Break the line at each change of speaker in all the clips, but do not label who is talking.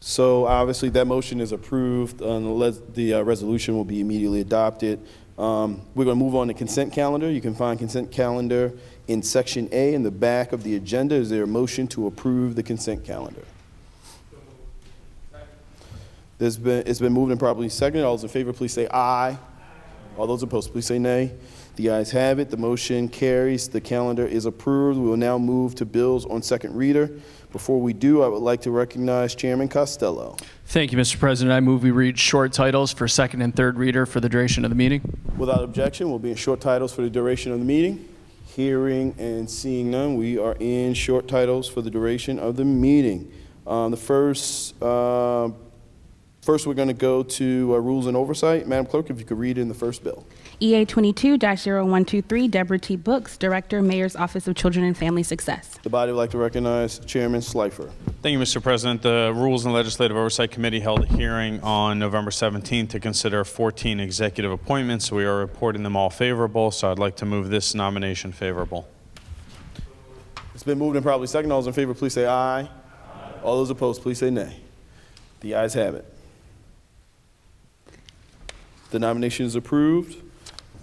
So obviously, that motion is approved, and the les- the uh, resolution will be immediately adopted. Um, We're going to move on to consent calendar. You can find consent calendar in Section A in the back of the agenda. Is there a motion to approve the consent calendar? There's been, it's been moved and properly seconded. All those in favor, please say aye. All those opposed, please say nay. The ayes have it. The motion carries. The calendar is approved. We will now move to bills on second reader. Before we do, I would like to recognize Chairman Costello.
Thank you, Mr. President. I move we read short titles for second and third reader for the duration of the meeting.
Without objection, we'll be in short titles for the duration of the meeting. Hearing and seeing none, we are in short titles for the duration of the meeting. Um, The first, uh, first, we're going to go to uh, Rules and Oversight. Madam Clerk, if you could read in the first bill.
EA 22-0123, Deborah T. Books, Director, Mayor's Office of Children and Family Success.
The body would like to recognize Chairman Schleifer.
Thank you, Mr. President. The Rules and Legislative Oversight Committee held a hearing on November 17th to consider 14 executive appointments. We are reporting them all favorable, so I'd like to move this nomination favorable.
It's been moved and probably second. All those in favor, please say aye. All those opposed, please say nay. The ayes have it. The nomination is approved.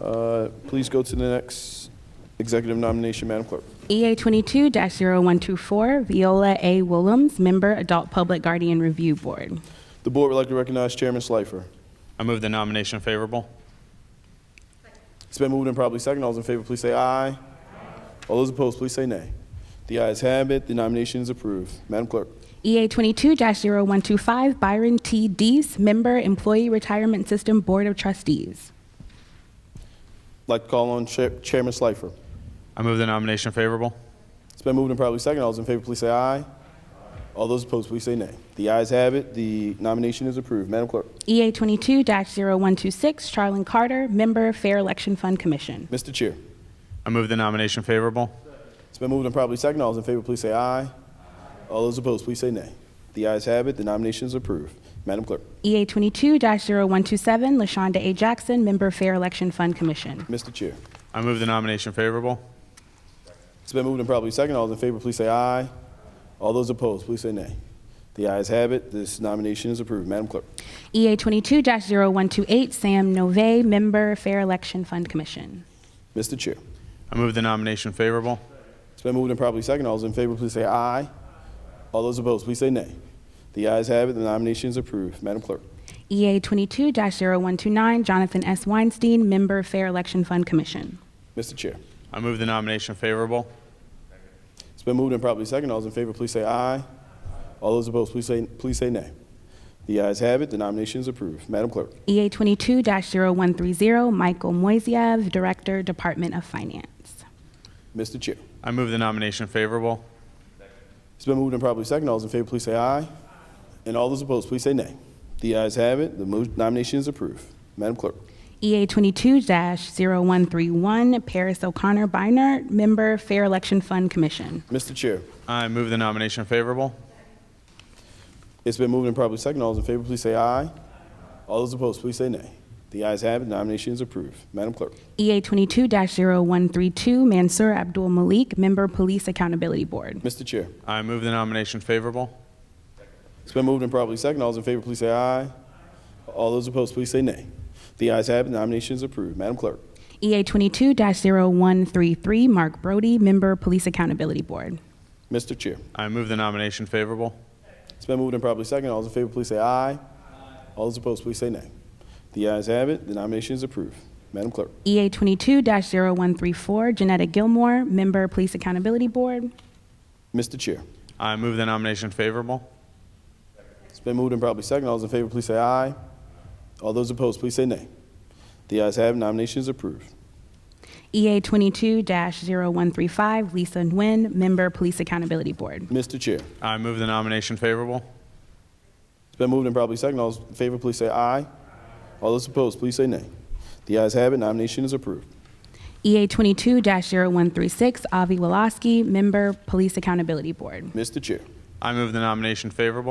Uh, Please go to the next executive nomination, Madam Clerk.
EA 22-0124, Viola A. Willems, Member, Adult Public Guardian Review Board.
The board would like to recognize Chairman Schleifer.
I move the nomination favorable.
It's been moved and probably second. All those in favor, please say aye. All those opposed, please say nay. The ayes have it. The nomination is approved. Madam Clerk.
EA 22-0125, Byron T. Dees, Member, Employee Retirement System Board of Trustees.
I'd like to call on Chair- Chairman Schleifer.
I move the nomination favorable.
It's been moved and probably second. All those in favor, please say aye. All those opposed, please say nay. The ayes have it. The nomination is approved. Madam Clerk.
EA 22-0126, Charlene Carter, Member, Fair Election Fund Commission.
Mr. Chair.
I move the nomination favorable.
It's been moved and probably second. All those in favor, please say aye. All those opposed, please say nay. The ayes have it. The nomination is approved. Madam Clerk.
EA 22-0127, LaShonda A. Jackson, Member, Fair Election Fund Commission.
Mr. Chair.
I move the nomination favorable.
It's been moved and probably second. All those in favor, please say aye. All those opposed, please say nay. The ayes have it. This nomination is approved. Madam Clerk.
EA 22-0128, Sam Nove, Member, Fair Election Fund Commission.
Mr. Chair.
I move the nomination favorable.
It's been moved and probably second. All those in favor, please say aye. All those opposed, please say nay. The ayes have it. The nomination is approved. Madam Clerk.
EA 22-0129, Jonathan S. Weinstein, Member, Fair Election Fund Commission.
Mr. Chair.
I move the nomination favorable.
It's been moved and properly second. All those in favor, please say aye. All those opposed, please say, please say nay. The ayes have it. The nomination is approved. Madam Clerk.
EA 22-0130, Michael Moiseev, Director, Department of Finance.
Mr. Chair.
I move the nomination favorable.
It's been moved and properly second. All those in favor, please say aye. And all those opposed, please say nay. The ayes have it. The mo- nomination is approved. Madam Clerk.
EA 22-0131, Paris O'Connor Beinart, Member, Fair Election Fund Commission.
Mr. Chair.
I move the nomination favorable.
It's been moved and properly second. All those in favor, please say aye. All those opposed, please say nay. The ayes have it. The nomination is approved. Madam Clerk.
EA 22-0132, Mansour Abdul Malik, Member, Police Accountability Board.
Mr. Chair.
I move the nomination favorable.
It's been moved and properly second. All those in favor, please say aye. All those opposed, please say nay. The ayes have it. The nomination is approved. Madam Clerk.
EA 22-0133, Mark Brody, Member, Police Accountability Board.
Mr. Chair.
I move the nomination favorable.
It's been moved and properly second. All those in favor, please say aye. All those opposed, please say nay. The ayes have it. The nomination is approved. Madam Clerk.
EA 22-0134, Janetta Gilmore, Member, Police Accountability Board.
Mr. Chair.
I move the nomination favorable.
It's been moved and properly second. All those in favor, please say aye. All those opposed, please say nay. The ayes have it. Nomination is approved.
EA 22-0135, Lisa Nguyen, Member, Police Accountability Board.
Mr. Chair.
I move the nomination favorable.
It's been moved and properly second. All those in favor, please say aye. All those opposed, please say nay. The ayes have it. Nomination is approved.
EA 22-0136, Avi Woloski, Member, Police Accountability Board.
Mr. Chair.
I move the nomination favorable.